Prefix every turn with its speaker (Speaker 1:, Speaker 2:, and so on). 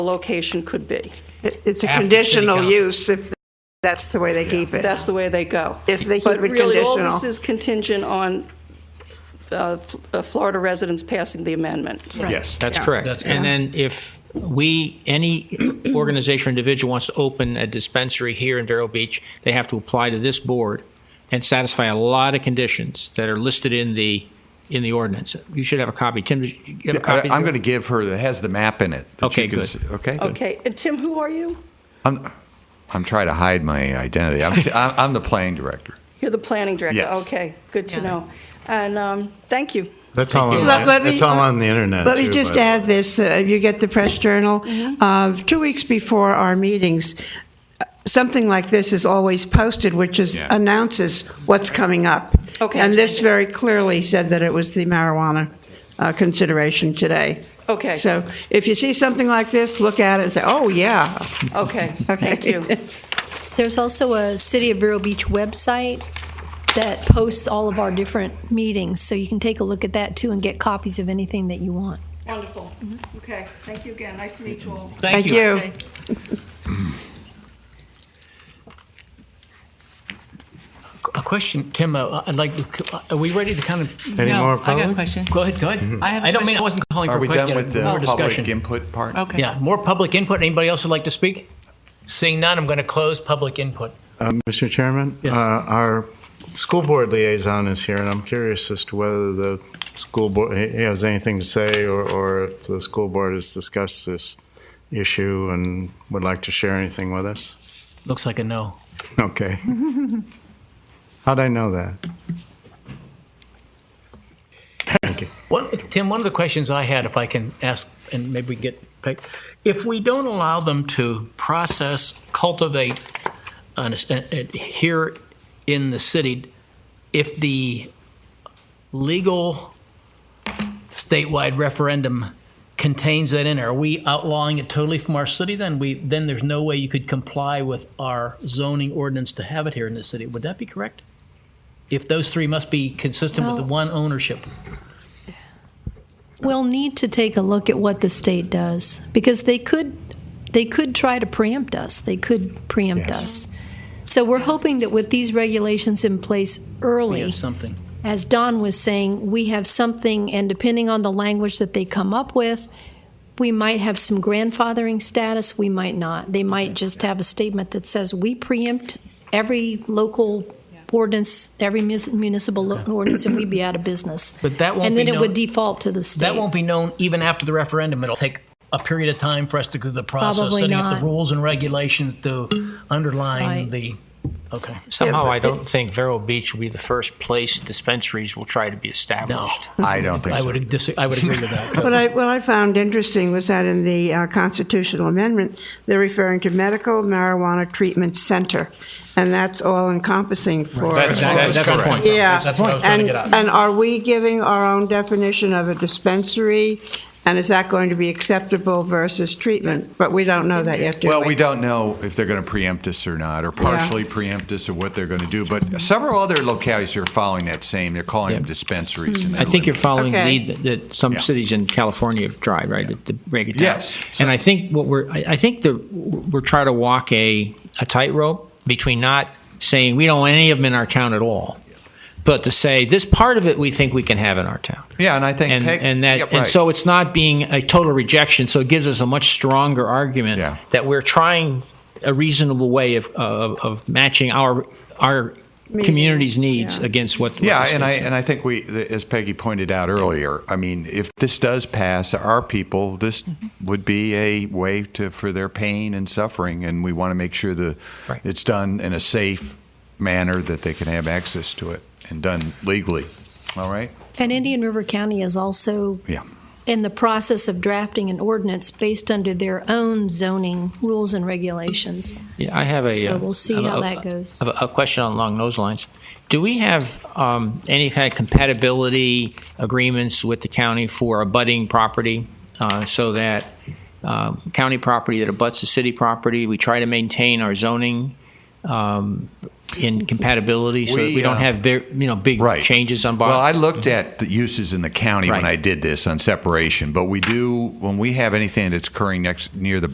Speaker 1: the location could be.
Speaker 2: It- It's a
Speaker 3: After city
Speaker 2: conditional
Speaker 3: council.
Speaker 2: use if that's the way they keep it.
Speaker 1: That's the way they go.
Speaker 2: If they keep
Speaker 1: But
Speaker 2: it
Speaker 1: really, all this
Speaker 2: conditional.
Speaker 1: is contingent on uh, F- uh, Florida residents passing the amendment.
Speaker 4: Yes.
Speaker 3: That's correct.
Speaker 5: That's
Speaker 3: And then if we, any organization or individual wants to open a dispensary here in Vero Beach, they have to apply to this board and satisfy a lot of conditions that are listed in the, in the ordinance. You should have a copy. Tim, you have a
Speaker 4: I,
Speaker 3: copy?
Speaker 4: I'm going to give her that has the map in it. that
Speaker 3: Okay,
Speaker 4: you can
Speaker 3: good.
Speaker 4: see- Okay. good.
Speaker 1: Okay, and Tim, who are you?
Speaker 4: I'm, I'm trying to hide my identity. I'm, t- I'm, I'm the planning director.
Speaker 1: You're the planning director?
Speaker 4: Yes.
Speaker 1: Okay, good to know. And um, thank you.
Speaker 6: That's all, on,
Speaker 2: Let- let me-
Speaker 6: that's all on the internet.
Speaker 2: Let me
Speaker 6: too,
Speaker 2: just
Speaker 6: by the way.
Speaker 2: add this, uh, you get the press journal.
Speaker 1: Mm-hmm.
Speaker 2: Uh, Two weeks before our meetings, uh, something like this is always posted, which is
Speaker 4: Yeah.
Speaker 2: announces what's coming up.
Speaker 1: Okay.
Speaker 2: And this very clearly said that it was the marijuana uh, consideration today.
Speaker 1: Okay,
Speaker 2: So if you see something like this, look at it and say, oh, yeah.
Speaker 1: okay, thank you.
Speaker 7: There's also a City of Vero Beach website that posts all of our different meetings, so you can take a look at that too and get copies of anything that you want.
Speaker 1: Wonderful. Okay, thank you again. Nice to meet you all.
Speaker 2: Thank you.
Speaker 1: Okay.
Speaker 3: A question, Tim, uh, I'd like, to- are we ready to kind of?
Speaker 6: Any
Speaker 8: No,
Speaker 6: more
Speaker 8: I got a
Speaker 6: public?
Speaker 8: question. Mm-hmm.
Speaker 3: Go ahead, go ahead.
Speaker 8: I have a
Speaker 3: don't mean, I
Speaker 8: question.
Speaker 3: wasn't calling for
Speaker 4: Are
Speaker 3: a
Speaker 4: we done
Speaker 3: question.
Speaker 4: with the
Speaker 3: more
Speaker 4: public
Speaker 3: discussion.
Speaker 4: input part?
Speaker 8: Okay.
Speaker 3: Yeah, more public input. Anybody else would like to speak? Seeing none, I'm going to close public input.
Speaker 6: Uh, Mr. Chairman,
Speaker 3: Yes.
Speaker 6: uh, our school board liaison is here, and I'm curious as to whether the school board has anything to say, or, or if the school board has discussed this issue and would like to share anything with us.
Speaker 3: Looks like a no.
Speaker 6: Okay. How'd I know that? Thank you.
Speaker 3: One, Tim, one of the questions I had, if I can ask, and maybe we get picked, if we don't allow them to process, cultivate an, uh, here in the city, if the legal statewide referendum contains that in, are we outlawing it totally from our city? Then we then there's no way you could comply with our zoning ordinance to have it here in the city. Would that be correct? If those three must be consistent with
Speaker 7: Well-
Speaker 3: the one ownership.
Speaker 7: We'll need to take a look at what the state does, because they could, they could try to preempt us. They could preempt us. So we're hoping that with these regulations in place
Speaker 3: We
Speaker 7: early,
Speaker 3: have something.
Speaker 7: as Don was saying, we have something, and depending on the language that they come up with, we might have some grandfathering status, we might not. They might just have a statement that says, we preempt every local ordinance, every mus- municipal lo- ordinance, and we'd be out of business.
Speaker 3: But that won't
Speaker 7: And then
Speaker 3: be
Speaker 7: it would
Speaker 3: known,
Speaker 7: default to the state.
Speaker 3: that won't be known even after the referendum. It'll take a period of time for us to go through the process,
Speaker 7: Probably
Speaker 3: setting up
Speaker 7: not. Mm.
Speaker 3: the rules and regulations to underline
Speaker 7: Right.
Speaker 3: the. Okay.
Speaker 9: Somehow,
Speaker 2: but
Speaker 9: I don't think Vero Beach will be the first place dispensaries will try to be established.
Speaker 4: I don't think
Speaker 3: I
Speaker 4: so.
Speaker 3: would dis- I would agree with that.
Speaker 2: What I, what I found interesting was that in the uh, constitutional amendment, they're referring to medical marijuana treatment center, and that's all encompassing for.
Speaker 4: That's-
Speaker 3: Exactly.
Speaker 4: that's
Speaker 3: That's the
Speaker 4: correct.
Speaker 3: point.
Speaker 2: Yeah.
Speaker 3: That's what I was trying to
Speaker 2: And,
Speaker 3: get at.
Speaker 2: and are we giving our own definition of a dispensary, and is that going to be acceptable versus treatment? But we don't know that yet, do we?
Speaker 4: Well, we don't know if they're going to preempt us or not, or partially preempt us, or what they're going to do. But several other localities are following that same. They're calling them
Speaker 3: Yeah. Hmm.
Speaker 4: dispensaries. and
Speaker 3: I think you're
Speaker 4: they're-
Speaker 3: following the
Speaker 2: Okay.
Speaker 3: lead that, that some
Speaker 4: Yeah.
Speaker 3: cities in California have tried, right? To, to break it down.
Speaker 4: Yes.
Speaker 3: And I think what we're, I I think the we're trying to walk a a tightrope between not saying we don't want any of them in our town at all, but to say this part of it we think we can have in our town.
Speaker 4: Yeah, and I think
Speaker 3: and,
Speaker 4: Peg-
Speaker 3: and that
Speaker 4: yeah,
Speaker 3: and
Speaker 4: right.
Speaker 3: so it's not being a total rejection. So it gives us a much stronger argument
Speaker 4: Yeah.
Speaker 3: that we're trying a reasonable way of of, of matching our our
Speaker 2: Maybe,
Speaker 3: community's needs
Speaker 2: yeah.
Speaker 3: against what. what
Speaker 4: Yeah,
Speaker 3: the
Speaker 4: and I
Speaker 3: state's-
Speaker 4: and I think we, th- as Peggy pointed out earlier, I mean, if this does pass, our people, this
Speaker 9: Mm-hmm.
Speaker 4: would be a way to for their pain and suffering, and we want to make sure that
Speaker 3: Right.
Speaker 4: it's done in a safe manner that they can have access to it and done legally. All right.
Speaker 7: And Indian River County is also
Speaker 4: Yeah.
Speaker 7: in the process of drafting an ordinance based under their own zoning rules and regulations.
Speaker 9: Yeah, I have a.
Speaker 7: So
Speaker 9: uh,
Speaker 7: we'll see
Speaker 9: have a-
Speaker 7: how that goes.
Speaker 9: have A a question along those lines. Do we have um, any kind of compatibility agreements with the county for abutting property? uh, So that um, county property that abuts the city property, we try to maintain our zoning um, in compatibility so that
Speaker 4: We,
Speaker 9: we don't
Speaker 4: uh,
Speaker 9: have, big, you know, big
Speaker 4: Right.
Speaker 9: changes on.
Speaker 4: Well,
Speaker 9: bar-
Speaker 4: I looked at the uses in the county when
Speaker 9: Right.
Speaker 4: I did this on separation, but we do when we have anything that's occurring next near the